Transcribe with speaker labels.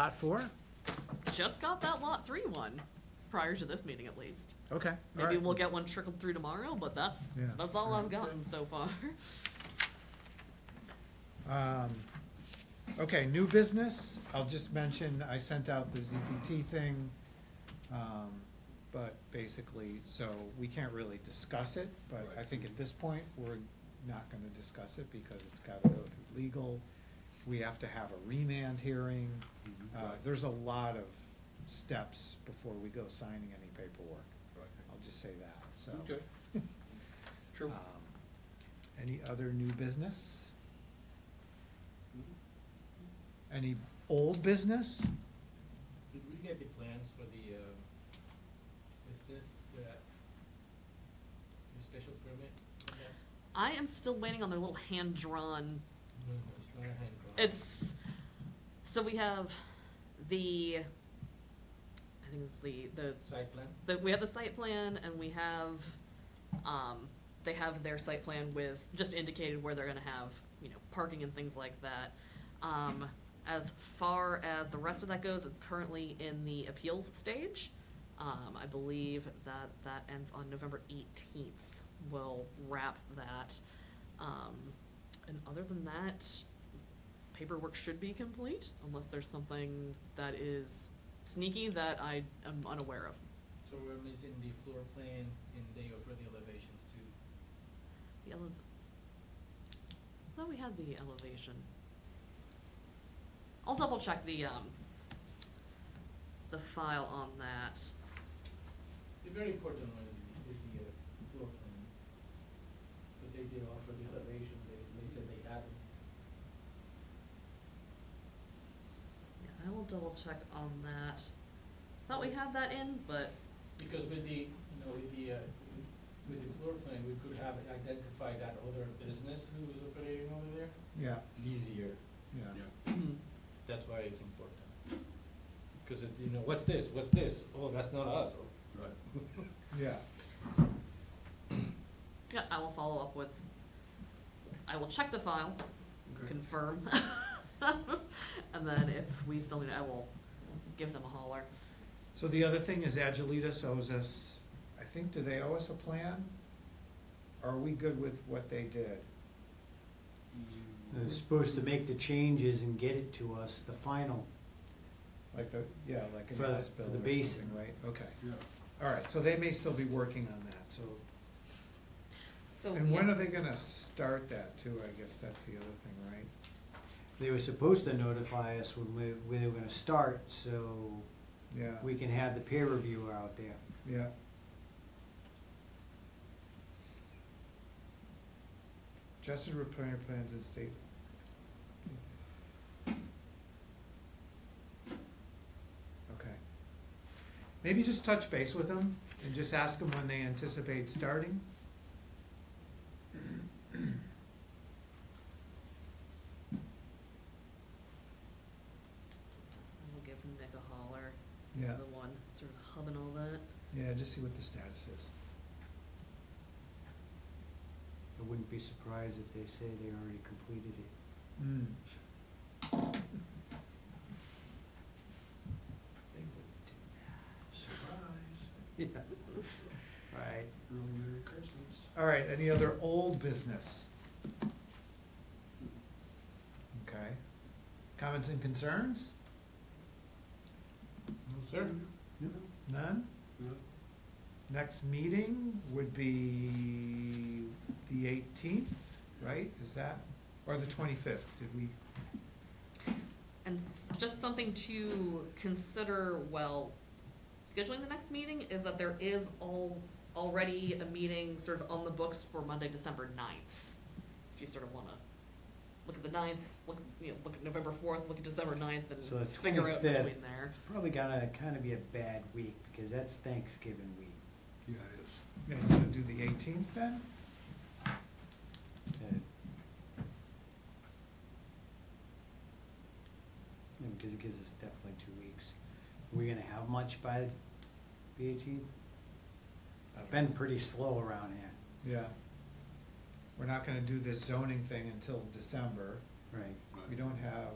Speaker 1: Lot four?
Speaker 2: Just got that lot three one, prior to this meeting at least.
Speaker 1: Okay. all
Speaker 2: Maybe
Speaker 1: right.
Speaker 2: we'll get one trickled through tomorrow, but that's,
Speaker 1: Yeah.
Speaker 2: that's all I've gotten so far.
Speaker 1: Um, Okay, new business, I'll just mention, I sent out the ZPT thing, um, but basically, so we can't really discuss it, but I think at this point, we're not gonna discuss it because it's gotta go through legal. We have to have a remand hearing, uh, there's a lot of steps before we go signing any paperwork.
Speaker 3: Right.
Speaker 1: I'll just say that, so.
Speaker 3: Okay. True.
Speaker 1: Um, Any other new business? Any old business?
Speaker 4: Did we get the plans for the, um, is this the, the special permit? for that?
Speaker 2: I am still waiting on their little hand-drawn,
Speaker 4: No, no, it's not a hand drawing.
Speaker 2: it's, so we have the, I think it's the, the
Speaker 4: Site plan?
Speaker 2: the, we have the site plan and we have, um, they have their site plan with, just indicated where they're gonna have, you know, parking and things like that. Um, as far as the rest of that goes, it's currently in the appeals stage. Um, I believe that that ends on November eighteenth. We'll wrap that. Um, and other than that, paperwork should be complete unless there's something that is sneaky that I am unaware of.
Speaker 4: So we're missing the floor plan and they offer the elevations too.
Speaker 2: The elev- I thought we had the elevation. I'll double check the, um, the file on that.
Speaker 4: The very important one is the, is the, uh, floor plan. But they did offer the elevation, they, they said they had it.
Speaker 2: Yeah, I will double check on that. Thought we had that in, but,
Speaker 4: Because with the, you know, with the, uh, with the floor plan, we could have identified that other business who was operating over there.
Speaker 1: Yeah,
Speaker 4: Easier.
Speaker 1: yeah.
Speaker 4: That's why it's important. Because it, you know, what's this, what's this? Oh, that's not us. Oh,
Speaker 3: Right.
Speaker 1: Yeah,
Speaker 2: yeah, I will follow up with, I will check the file, confirm. And then if we still need, it, I will give them a holler.
Speaker 1: so the other thing is Agiletus owes us, I think, do they owe us a plan? Are we good with what they did?
Speaker 5: They're supposed to make the changes and get it to us, the final.
Speaker 1: Like the, yeah, like
Speaker 5: For
Speaker 1: an
Speaker 5: the-
Speaker 1: as-built
Speaker 5: for the
Speaker 1: or
Speaker 5: basin.
Speaker 1: something, right? Okay,
Speaker 3: Yeah.
Speaker 1: all right, so they may still be working on that, so.
Speaker 2: So,
Speaker 1: And when
Speaker 2: yeah,
Speaker 1: are they gonna start that too? I guess that's the other thing, right?
Speaker 5: They were supposed to notify us when we, when they were gonna start, so
Speaker 1: Yeah,
Speaker 5: we can have the peer reviewer out there.
Speaker 1: yeah. Adjusted repair plans and state Okay. Maybe just touch base with them and just ask them when they anticipate starting.
Speaker 2: I will give Nick a holler. He's The one sort of hubbing all that.
Speaker 1: Yeah, just see what the status is.
Speaker 5: I wouldn't be surprised if they say they already completed it.
Speaker 1: Mm. Hmm.
Speaker 5: They wouldn't do that. Yeah, right.
Speaker 3: Real Merry Christmas.
Speaker 1: All right, any other old business? Okay. Comments and concerns?
Speaker 4: No, sir.
Speaker 1: None?
Speaker 3: No.
Speaker 1: Next meeting would be the eighteenth, right? Is that, or the twenty-fifth, did we?
Speaker 2: And s- just something to consider while scheduling the next meeting is that there is all, already a meeting sort of on the books for Monday, December ninth. If you sort of wanna look at the ninth, look, you know, look at November fourth, look at December ninth
Speaker 5: So the
Speaker 2: and figure out
Speaker 5: 25th.
Speaker 2: between there.
Speaker 5: It's probably gonna kinda be a bad week, because that's Thanksgiving week.
Speaker 3: Yeah, it is.
Speaker 1: Yeah, you wanna do the eighteenth then?
Speaker 5: that- Uh, Yeah, because it gives us definitely two weeks. We're gonna have much by the eighteenth? Been pretty slow around here.
Speaker 1: Yeah. We're not gonna do this zoning thing until December.
Speaker 5: Right.
Speaker 1: We
Speaker 3: Right.
Speaker 1: don't have